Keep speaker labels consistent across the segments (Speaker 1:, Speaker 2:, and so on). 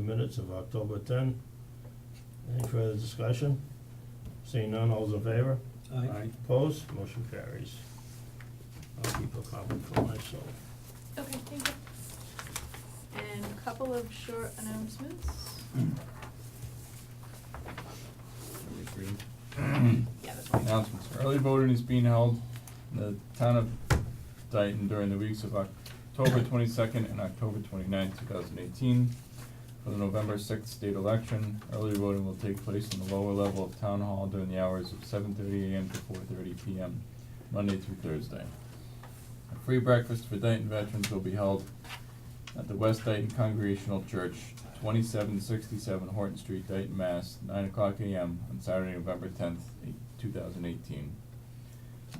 Speaker 1: minutes of October ten. Any further discussion? Seeing none, all's in favor?
Speaker 2: Aye.
Speaker 1: Opposed, motion carries. I'll keep a copy for myself.
Speaker 3: Okay, thank you. And a couple of short announcements. Yeah, that's one.
Speaker 4: Announcements, early voting is being held in the town of Dayton during the weeks of October twenty-second and October 29th, thousand eighteen. For the November sixth state election, early voting will take place in the lower level of town hall during the hours of seven thirty AM to four thirty PM, Monday through Thursday. A free breakfast for Dayton veterans will be held at the West Dayton Congregational Church, twenty-seven sixty-seven Horton Street, Dayton, Mass, nine o'clock AM on Saturday, November tenth, two thousand eighteen.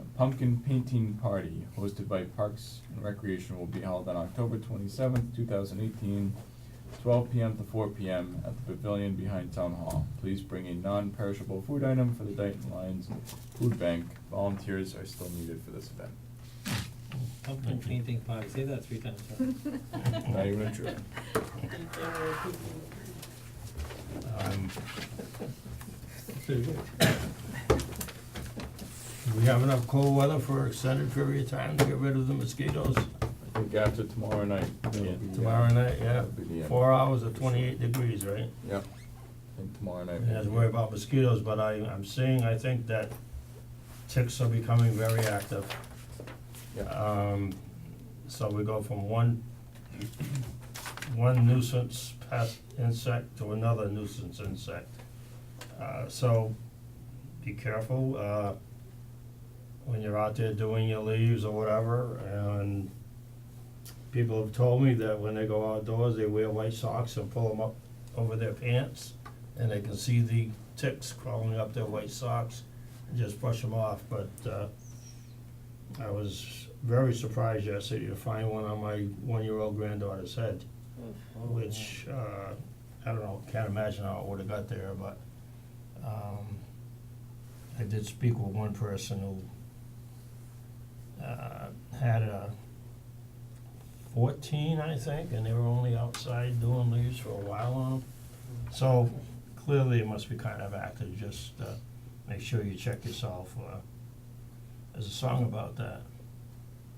Speaker 4: A pumpkin painting party hosted by Parks and Recreation will be held on October twenty-seventh, two thousand eighteen, twelve PM to four PM at the pavilion behind Town Hall. Please bring a non-perishable food item for the Dayton Lions Food Bank. Volunteers are still needed for this event.
Speaker 2: Pumpkin painting party, say that three times fast.
Speaker 4: Not even a trip.
Speaker 1: Um. Do we have enough cold weather for an extended period of time to get rid of the mosquitoes?
Speaker 4: I think after tomorrow night, it'll be, uh,
Speaker 1: Tomorrow night, yeah,
Speaker 4: That'll be the end.
Speaker 1: four hours of twenty-eight degrees, right?
Speaker 4: Yep, I think tomorrow night.
Speaker 1: And
Speaker 4: will
Speaker 1: have to
Speaker 4: be-
Speaker 1: worry about mosquitoes, but I, I'm seeing, I think that ticks are becoming very active.
Speaker 4: Yep,
Speaker 1: Um, so we go from one, one nuisance pest insect to another nuisance insect. Uh, so be careful, uh, when you're out there doing your leaves or whatever, and people have told me that when they go outdoors, they wear white socks and pull them up over their pants, and they can see the ticks crawling up their white socks, and just brush them off, but, uh, I was very surprised yesterday to find one on my one-year-old granddaughter's head, which, uh, I don't know, can't imagine how it would've got there, but, um, I did speak with one person who, uh, had a fourteen, I think, and they were only outside doing leaves for a while on 'em. So clearly it must be kind of active, just, uh, make sure you check yourself, uh, there's a song about that.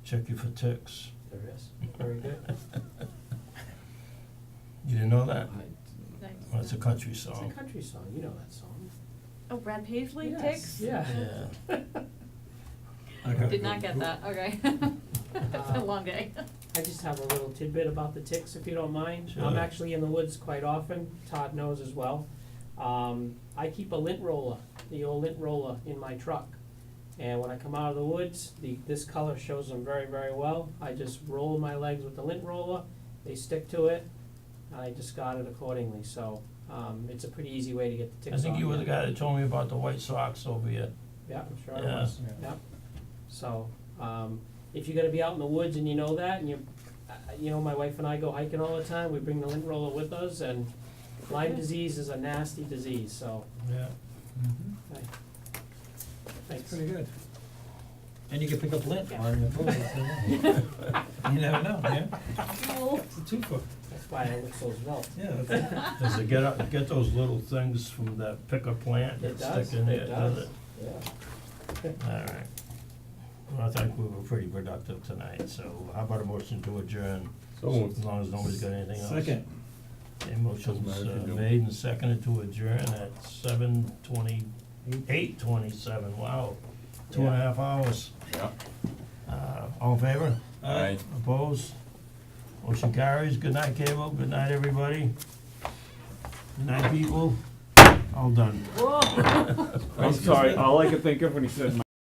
Speaker 1: Check you for ticks.
Speaker 2: There is, very good.
Speaker 1: You didn't know that?
Speaker 3: Nice.
Speaker 1: Well, it's a country
Speaker 2: It's a
Speaker 1: song.
Speaker 2: country song, you know that song.
Speaker 3: Oh, Brad Paisley
Speaker 2: Yes,
Speaker 3: ticks?
Speaker 2: yeah.
Speaker 1: Yeah.
Speaker 3: Did not get that, okay. It's a long day.
Speaker 5: I just have a little tidbit about the ticks, if you don't mind. I'm
Speaker 1: Sure.
Speaker 5: actually in the woods quite often, Todd knows as well. Um, I keep a lint roller, the old lint roller in my truck. And when I come out of the woods, the, this color shows them very, very well. I just roll my legs with the lint roller, they stick to it, I discard it accordingly, so, um, it's a pretty easy way to get
Speaker 1: I
Speaker 5: the ticks off.
Speaker 1: think you were the guy that told me about the White Sox over here.
Speaker 5: Yeah, I'm sure it
Speaker 1: Yeah.
Speaker 5: was, yeah. So, um, if you're gonna be out in the woods and you know that, and you, uh, you know, my wife and I go hiking all the time, we bring the lint roller with us, and Lyme disease is a nasty disease, so,
Speaker 1: Yeah.
Speaker 2: It's
Speaker 5: thanks.
Speaker 2: pretty good. And you can pick up lint on the pool, you never know, yeah? It's a twofer,
Speaker 5: That's why I look so svelte.
Speaker 2: yeah, that's it.
Speaker 1: Does it get out, get those little things from that picker plant that
Speaker 5: It does,
Speaker 1: stick in there,
Speaker 5: it
Speaker 1: does
Speaker 5: does,
Speaker 1: it?
Speaker 5: yeah.
Speaker 1: Alright. Well, I think we were pretty productive tonight, so how about a motion to adjourn?
Speaker 4: so moved.
Speaker 1: As long as nobody's got anything else.
Speaker 2: Second,
Speaker 1: Okay, motion's
Speaker 4: Doesn't matter if
Speaker 1: uh,
Speaker 4: you do.
Speaker 1: made and seconded to adjourn at seven twenty, eight twenty-seven, wow, two and a half hours.
Speaker 4: Yeah.
Speaker 1: Uh, all in favor?
Speaker 4: Aye.
Speaker 1: Opposed? Motion carries. Good night, Cable. Good night, everybody. Good night, people. All done.
Speaker 3: Whoa.
Speaker 6: I'm sorry, all I could think of when he said